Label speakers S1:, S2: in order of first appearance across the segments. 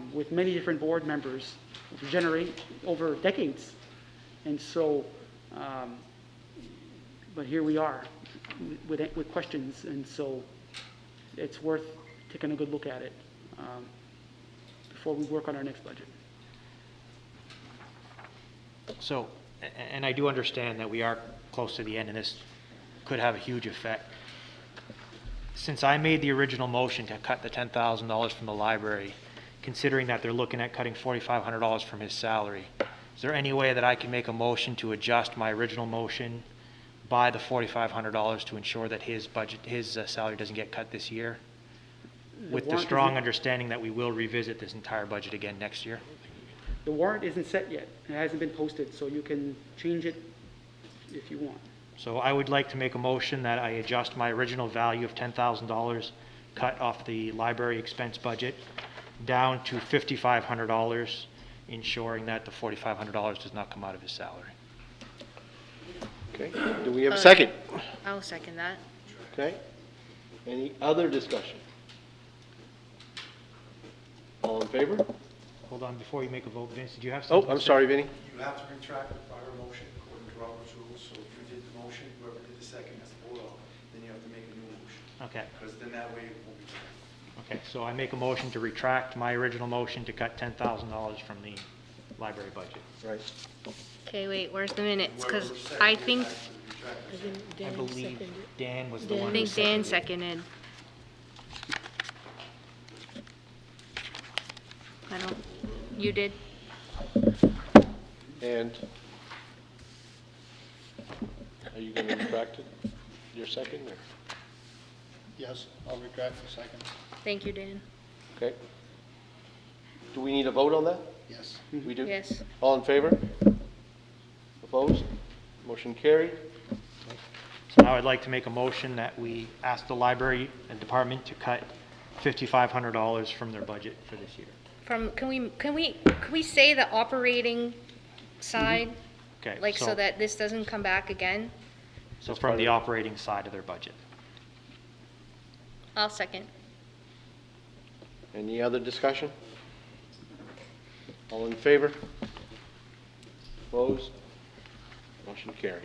S1: um, with many different board members, generate over decades. And so, um, but here we are with, with questions, and so it's worth taking a good look at it um, before we work on our next budget.
S2: So, a- and I do understand that we are close to the end, and this could have a huge effect. Since I made the original motion to cut the $10,000 from the library, considering that they're looking at cutting $4,500 from his salary, is there any way that I can make a motion to adjust my original motion by the $4,500 to ensure that his budget, his uh, salary doesn't get cut this year? With the
S1: warrant
S2: strong
S1: isn't-
S2: understanding that we will revisit this entire budget again next year?
S1: The warrant isn't set yet, it hasn't been posted, so you can change it if you want.
S2: So I would like to make a motion that I adjust my original value of $10,000 cut off the library expense budget down to $5,500, ensuring that the $4,500 does not come out of his salary.
S3: Okay, do we have a second?
S4: I'll second that.
S3: Okay. Any other discussion? All in favor?
S2: Hold on, before you make a vote, Vince, did you have
S3: Oh,
S2: something?
S3: I'm
S2: to say?
S3: sorry, Vinny.
S5: You have to retract the prior motion according to Robert's rules, so if you did the motion, whoever did the second has to vote off, then you have to make a new motion,
S2: Okay,
S5: because then that way it will be correct.
S2: okay. So I make a motion to retract my original motion to cut $10,000 from the library budget.
S3: Right.
S4: Okay, wait, where's the minutes? Because
S5: Whoever
S4: I
S5: seconded
S4: think,
S5: has to retract their second.
S2: I believe Dan was the
S4: I
S2: one who
S4: think Dan
S2: seconded.
S4: seconded. I don't, you did?
S3: And are you going to retract it, your second, or?
S6: Yes, I'll retract the second,
S4: Thank you, Dan.
S3: Okay. Do we need a vote on that?
S6: yes.
S3: We do?
S4: Yes.
S3: All in favor? Opposed? Motion carried.
S2: So now I'd like to make a motion that we ask the library and department to cut $5,500 from their budget for this year.
S4: From, can we, can we, can we say the operating side?
S2: Okay,
S4: Like, so
S2: so-
S4: that this doesn't come back again?
S2: So from the operating side of their budget.
S4: I'll second.
S3: Any other discussion? All in favor? Opposed? Motion carried.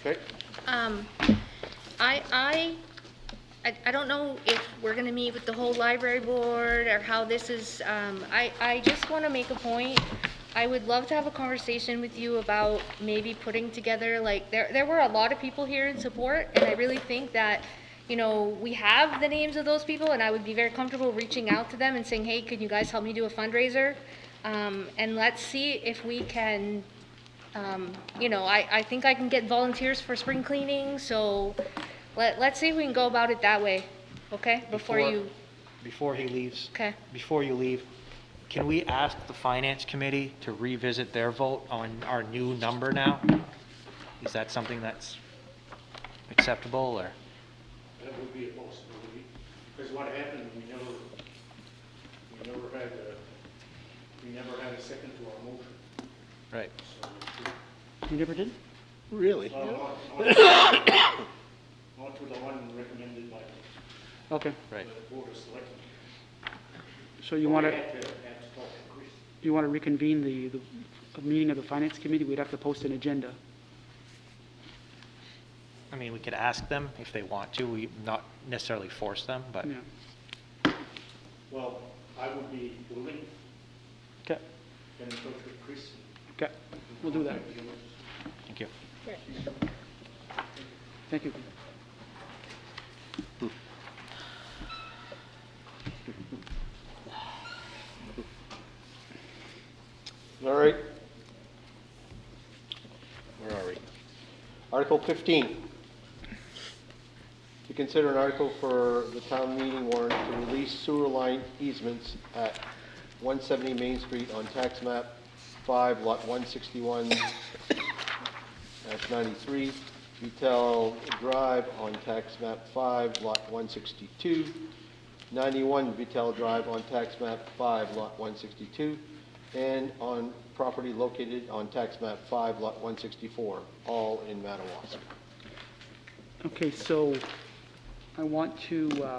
S3: Okay,
S4: Um, I, I, I, I don't know if we're gonna meet with the whole library board or how this is, um, I, I just wanna make a point. I would love to have a conversation with you about maybe putting together, like, there, there were a lot of people here in support, and I really think that, you know, we have the names of those people, and I would be very comfortable reaching out to them and saying, hey, can you guys help me do a fundraiser? Um, and let's see if we can um, you know, I, I think I can get volunteers for spring cleaning, so let, let's see if we can go about it that way, okay? Before you,
S2: Before he leaves,
S4: okay,
S2: before you leave, can we ask the finance committee to revisit their vote on our new number now? Is that something that's acceptable, or?
S7: That would be a possibility, because what happened, we never, we never had a, we never had a second to our motion,
S2: Right.
S7: so.
S1: You never did?
S3: really?
S7: Well, not- not- Not to the one recommended by the
S1: Okay,
S2: Right.
S7: the board of selectmen.
S1: so you want
S7: We
S1: to,
S7: had to, had to talk to Chris.
S1: you want to reconvene the, the a meeting of the finance committee, we'd have to post an agenda.
S2: I mean, we could ask them if they want to, we not necessarily force them, but.
S1: Yeah,
S7: Well, I would be willing,
S1: okay,
S7: and talk with Chris.
S1: okay, we'll do that,
S2: Thank you.
S1: thank you.
S3: All right. Where are we? Article 15. To consider an article for the town meeting warrant to release sewer line easements at 170 Main Street on tax map 5, lot 161, dash 93, Vitel Drive on tax map 5, lot 162, 91 Vitel Drive on tax map 5, lot 162, and on property located on tax map 5, lot 164, all in Madawaska.
S1: Okay, so I want to, uh,